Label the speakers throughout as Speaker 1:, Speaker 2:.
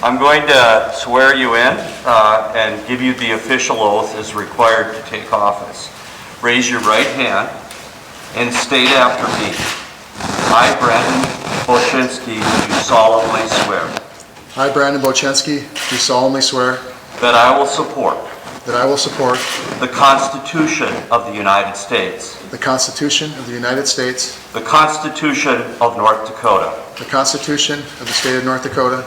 Speaker 1: I'm going to swear you in uh, and give you the official oath as required to take office. Raise your right hand and state after me. I, Brandon Boshinsky, do solemnly swear
Speaker 2: I, Brandon Bochensky, do solemnly swear
Speaker 1: that I will support
Speaker 2: that I will support
Speaker 1: the Constitution of the United States,
Speaker 2: the Constitution of the United States,
Speaker 1: the Constitution of North Dakota,
Speaker 2: the Constitution of the State of North Dakota,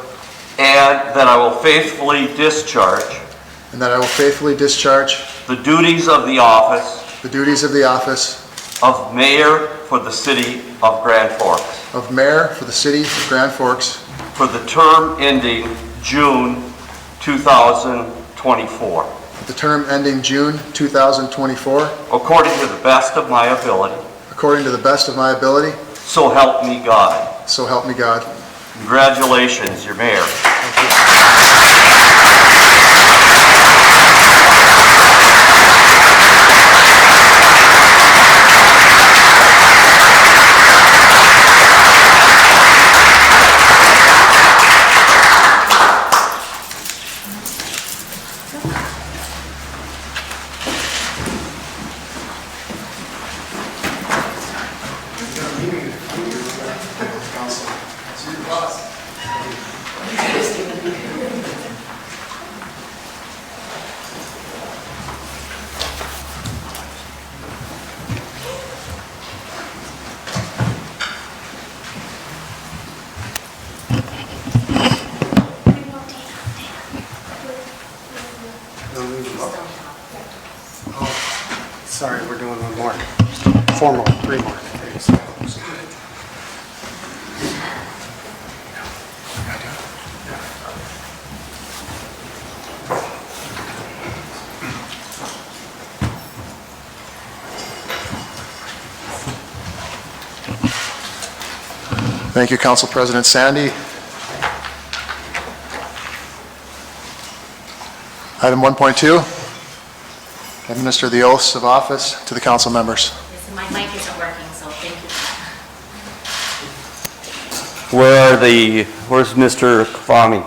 Speaker 1: and that I will faithfully discharge
Speaker 2: and that I will faithfully discharge
Speaker 1: the duties of the office
Speaker 2: the duties of the office
Speaker 1: of mayor for the city of Grand Forks
Speaker 2: of mayor for the city of Grand Forks
Speaker 1: for the term ending June 2024,
Speaker 2: with the term ending June 2024,
Speaker 1: according to the best of my ability.
Speaker 2: according to the best of my ability,
Speaker 1: So help me God.
Speaker 2: so help me God.
Speaker 1: Congratulations, you're mayor.
Speaker 3: Sorry, we're doing one more. Four more, three more.
Speaker 2: Thank you, Council President Sandy. Item 1.2, administer the oaths of office to the council members.
Speaker 4: Listen, my mic isn't working, so thank you.
Speaker 5: Where are the, where's Mr. Kafami?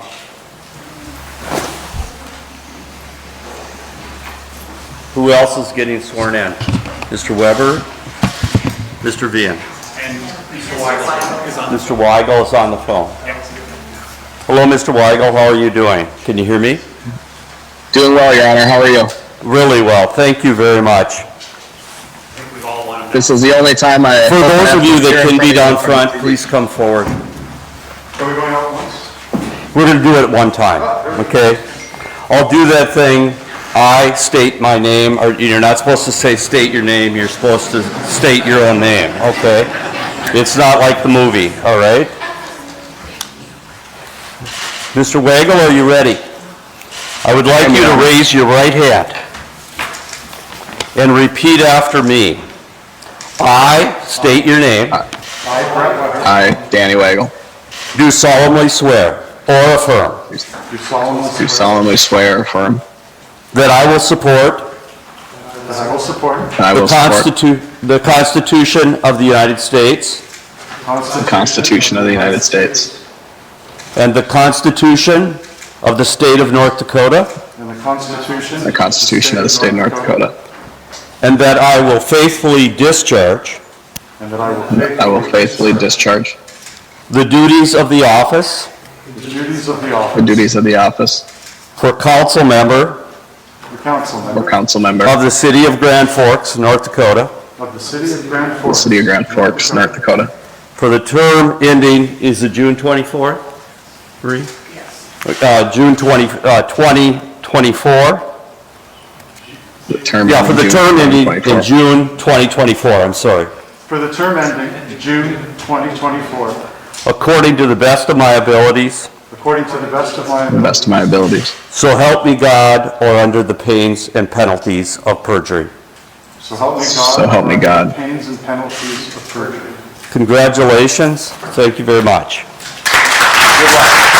Speaker 5: Who else is getting sworn in? Mr. Weber? Mr. Vian?
Speaker 6: And Mr. Weigel is on.
Speaker 5: Mr. Weigel is on the phone.
Speaker 6: Yep.
Speaker 5: Hello, Mr. Weigel, how are you doing? Can you hear me?
Speaker 7: Doing well, Your Honor. How are you?
Speaker 5: Really well, thank you very much.
Speaker 6: I think we've all won.
Speaker 7: This is the only time I.
Speaker 5: For those of you that can be down front, please come forward.
Speaker 3: Are we going out once? Oh,
Speaker 5: We're going to do it at one time, okay? I'll do that thing, I state my name, or you're not supposed to say state your name, you're supposed to state your own name, okay? It's not like the movie, all right? Mr. Wagle, are you ready? I would like you to raise your right hand and repeat after me. I state your name.
Speaker 7: I, Danny Wagle,
Speaker 5: Do solemnly swear or affirm
Speaker 7: do solemnly swear or affirm
Speaker 5: that I will support
Speaker 3: That I will support
Speaker 7: that I
Speaker 5: The
Speaker 7: will support
Speaker 5: Constitu, the Constitution of the United States
Speaker 7: the Constitution of the United States
Speaker 5: and the Constitution of the State of North Dakota,
Speaker 3: and the Constitution.
Speaker 7: and the Constitution of the State of North Dakota,
Speaker 5: and that I will faithfully discharge
Speaker 3: And that I will faithfully.
Speaker 7: I will faithfully discharge
Speaker 5: the duties of the office
Speaker 3: The duties of the
Speaker 7: the
Speaker 3: office.
Speaker 7: duties of the office
Speaker 5: for council member
Speaker 3: of council
Speaker 7: or
Speaker 3: member
Speaker 7: council member
Speaker 5: of
Speaker 7: of
Speaker 5: the City of Grand Forks, North Dakota,
Speaker 3: of the city of Grand
Speaker 7: the
Speaker 3: Forks.
Speaker 7: City of Grand Forks, North Dakota,
Speaker 5: for the term ending, is it June 24? Three? Uh, June 20, uh, 2024?
Speaker 7: the term.
Speaker 5: Yeah, for the
Speaker 7: ending
Speaker 5: term ending in
Speaker 7: 2024.
Speaker 5: June 2024, I'm sorry.
Speaker 3: For the term ending June 2024,
Speaker 5: According to the best of my abilities.
Speaker 3: according to the best of my
Speaker 7: To the
Speaker 3: ability.
Speaker 7: best of my abilities.
Speaker 5: So help me God, or under the pains and penalties of perjury.
Speaker 3: So help me God.
Speaker 7: So help me God.
Speaker 3: Pains and penalties of perjury.
Speaker 5: Congratulations. Thank you very much. Good luck.